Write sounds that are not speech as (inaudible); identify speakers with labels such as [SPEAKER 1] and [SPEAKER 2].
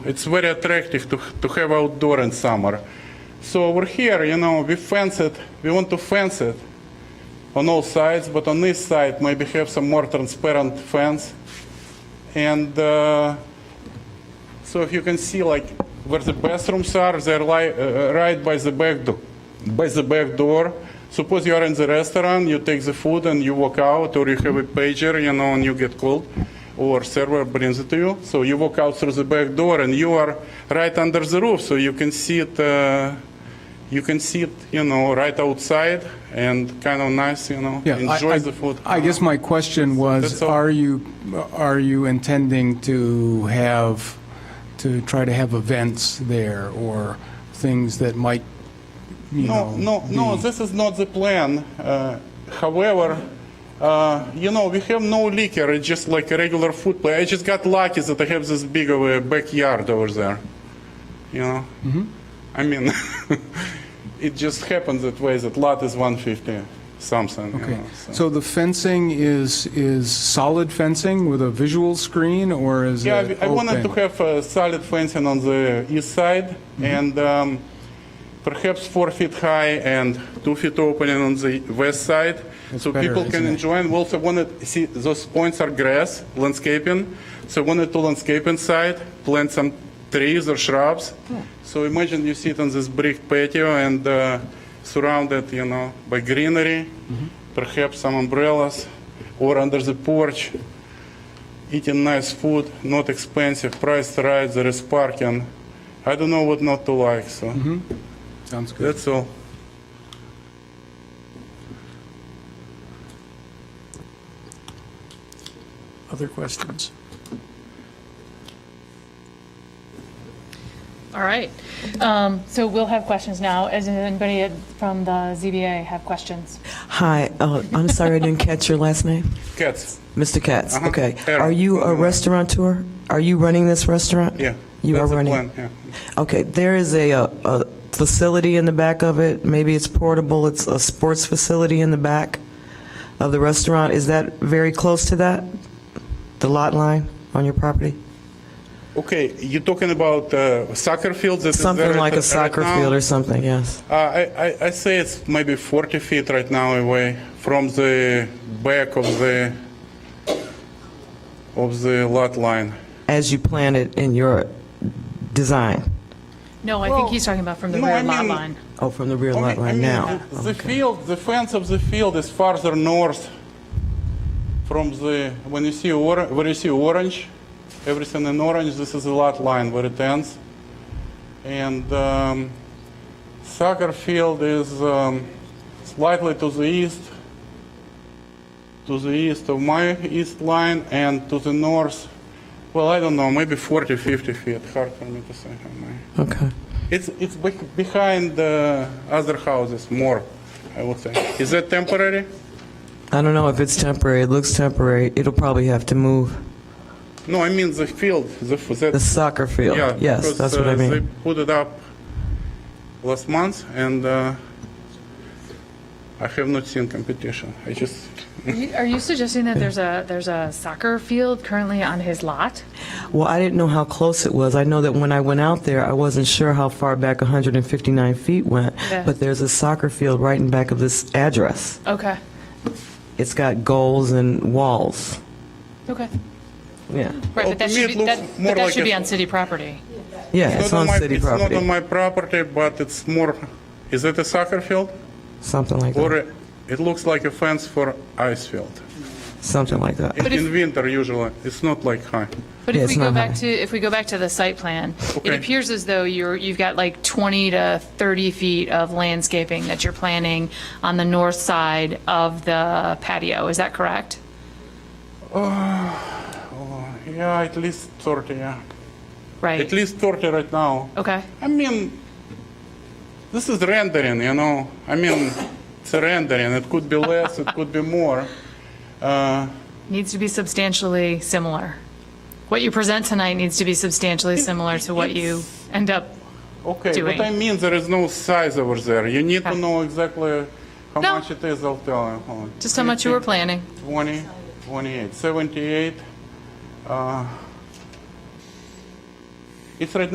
[SPEAKER 1] It's very attractive to, to have outdoor in summer. So over here, you know, we fence it. We want to fence it on all sides, but on this side, maybe have some more transparent fence. And uh, so if you can see, like where the bathrooms are, they're li- uh, right by the back do- by the back door. Suppose you are in the restaurant, you take the food and you walk out, or you have a pager, you know, and you get called, or server brings it to you. So you walk out through the back door, and you are right under the roof, so you can see it. Uh, you can see it, you know, right outside, and kind of nice, you know.
[SPEAKER 2] Yeah, I-
[SPEAKER 1] enjoy
[SPEAKER 2] I-
[SPEAKER 1] the food.
[SPEAKER 2] I guess my question was,
[SPEAKER 1] That's all.
[SPEAKER 2] are you, are you intending to have, to try to have events there or things that might, you
[SPEAKER 1] No,
[SPEAKER 2] know?
[SPEAKER 1] no, no, this is not the plan. Uh, However, uh, you know, we have no liquor, it's just like a regular food place. I just got lucky that I have this big of a backyard over there, you know?
[SPEAKER 2] Mm-hmm.
[SPEAKER 1] I mean, (laughs) it just happens that way, that lot is 150 something, you
[SPEAKER 2] Okay,
[SPEAKER 1] know, so.
[SPEAKER 2] so the fencing is, is solid fencing with a visual screen or is it
[SPEAKER 1] Yeah,
[SPEAKER 2] open?
[SPEAKER 1] I- I wanted to have uh, solid fencing on the east side
[SPEAKER 2] Mm-hmm.
[SPEAKER 1] and um, perhaps four feet high and two feet opening on the west side. So
[SPEAKER 2] better,
[SPEAKER 1] people can
[SPEAKER 2] isn't it?
[SPEAKER 1] enjoy and we also wanted, see, those points are grass, landscaping. So wanted to landscape inside, plant some trees or shrubs. So imagine you sit on this brick patio and uh, surrounded, you know, by greenery,
[SPEAKER 2] Mm-hmm.
[SPEAKER 1] perhaps some umbrellas or under the porch eating nice food, not expensive, priced right, there is parking. I don't know what not to like, so
[SPEAKER 2] Sounds good.
[SPEAKER 1] that's all.
[SPEAKER 3] Other questions?
[SPEAKER 4] All right. Um, So we'll have questions now. Does anybody from the ZBA have questions?
[SPEAKER 5] Hi, uh, I'm sorry I didn't catch your last name.
[SPEAKER 1] Cats,
[SPEAKER 5] Mr. Katz,
[SPEAKER 1] Uh-huh.
[SPEAKER 5] okay.
[SPEAKER 1] Aaron.
[SPEAKER 5] Are you a restaurateur? Are you running this restaurant?
[SPEAKER 1] yeah.
[SPEAKER 5] You are
[SPEAKER 1] that's the
[SPEAKER 5] running?
[SPEAKER 1] plan, yeah.
[SPEAKER 5] Okay, there is a, uh, a facility in the back of it, maybe it's portable, it's a sports facility in the back of the restaurant. Is that very close to that? The lot line on your property?
[SPEAKER 1] Okay, you're talking about uh, soccer fields? that is
[SPEAKER 5] Something
[SPEAKER 1] there
[SPEAKER 5] like
[SPEAKER 1] at-
[SPEAKER 5] a
[SPEAKER 1] right
[SPEAKER 5] soccer
[SPEAKER 1] now?
[SPEAKER 5] field or something, yes.
[SPEAKER 1] Uh, I, I, I say it's maybe 40 feet right now away from the back of the, of the lot line.
[SPEAKER 5] As you plan it in your design?
[SPEAKER 4] No, I think he's talking about from the
[SPEAKER 1] no, I
[SPEAKER 4] rear lot
[SPEAKER 1] mean-
[SPEAKER 4] line.
[SPEAKER 5] Oh, from the rear lot
[SPEAKER 1] I
[SPEAKER 5] line
[SPEAKER 1] mean,
[SPEAKER 5] now?
[SPEAKER 1] The, the field, the fence of the field is farther north from the when you see or, where you see orange, everything in orange. This is the lot line where it ends, and um, soccer field is um, slightly to the east, to the east of my east line, and to the north. Well, I don't know, maybe 40, 50 feet. Hard for me to say. how many.
[SPEAKER 5] Okay.
[SPEAKER 1] It's, it's beh- behind the other houses more, I would say. Is that temporary?
[SPEAKER 5] I don't know if it's temporary. It looks temporary. It'll probably have to move.
[SPEAKER 1] No, I mean the field, the, f- that.
[SPEAKER 5] The soccer field.
[SPEAKER 1] yeah,
[SPEAKER 5] yes,
[SPEAKER 1] because,
[SPEAKER 5] that's what I
[SPEAKER 1] uh,
[SPEAKER 5] mean.
[SPEAKER 1] They put it up last month and, uh, I have not seen competition. I just,
[SPEAKER 4] You- Are you suggesting that there's a, there's a soccer field currently on his lot?
[SPEAKER 5] Well, I didn't know how close it was. I know that when I went out there, I wasn't sure how far back 159 feet went,
[SPEAKER 4] Yeah.
[SPEAKER 5] but there's a soccer field right in back of this address.
[SPEAKER 4] Okay,
[SPEAKER 5] It's got goals and walls.
[SPEAKER 4] okay.
[SPEAKER 5] Yeah.
[SPEAKER 4] Right,
[SPEAKER 1] Well,
[SPEAKER 4] but that
[SPEAKER 1] to me,
[SPEAKER 4] should
[SPEAKER 1] it
[SPEAKER 4] be,
[SPEAKER 1] looks
[SPEAKER 4] that
[SPEAKER 1] more
[SPEAKER 4] but that
[SPEAKER 1] like
[SPEAKER 4] should
[SPEAKER 1] a-
[SPEAKER 4] be on city property.
[SPEAKER 5] Yeah, it's
[SPEAKER 1] not
[SPEAKER 5] on
[SPEAKER 1] my-
[SPEAKER 5] city
[SPEAKER 1] it's not on
[SPEAKER 5] property.
[SPEAKER 1] my property, but it's more, is that a soccer field?
[SPEAKER 5] Something like
[SPEAKER 1] Or
[SPEAKER 5] that.
[SPEAKER 1] a- it looks like a fence for ice field?
[SPEAKER 5] Something like that.
[SPEAKER 1] In
[SPEAKER 4] But if-
[SPEAKER 1] in winter usually, it's not like high.
[SPEAKER 4] But
[SPEAKER 5] Yeah,
[SPEAKER 4] if we
[SPEAKER 5] it's
[SPEAKER 4] go
[SPEAKER 5] not
[SPEAKER 4] back
[SPEAKER 5] high.
[SPEAKER 4] to, if we go back to the site plan, it
[SPEAKER 1] Okay.
[SPEAKER 4] appears as though you're, you've got like 20 to 30 feet of landscaping that you're planning on the north side of the patio. Is that correct?
[SPEAKER 1] Yeah, at least 30, yeah.
[SPEAKER 4] Right?
[SPEAKER 1] At least 30 right now.
[SPEAKER 4] Okay.
[SPEAKER 1] I mean, this is rendering, you know. I mean, it's a rendering. It could be less, it could be more. Uh,
[SPEAKER 4] needs to be substantially similar. What you present tonight needs to be substantially similar to what you end up,
[SPEAKER 1] okay,
[SPEAKER 4] Doing.
[SPEAKER 1] but I mean, there is no size over there. You need to
[SPEAKER 4] Okay.
[SPEAKER 1] know exactly how
[SPEAKER 4] No.
[SPEAKER 1] much it is. I'll tell you. Hold on.
[SPEAKER 4] just how much you were planning.
[SPEAKER 1] 20, 28, 78, uh, It's right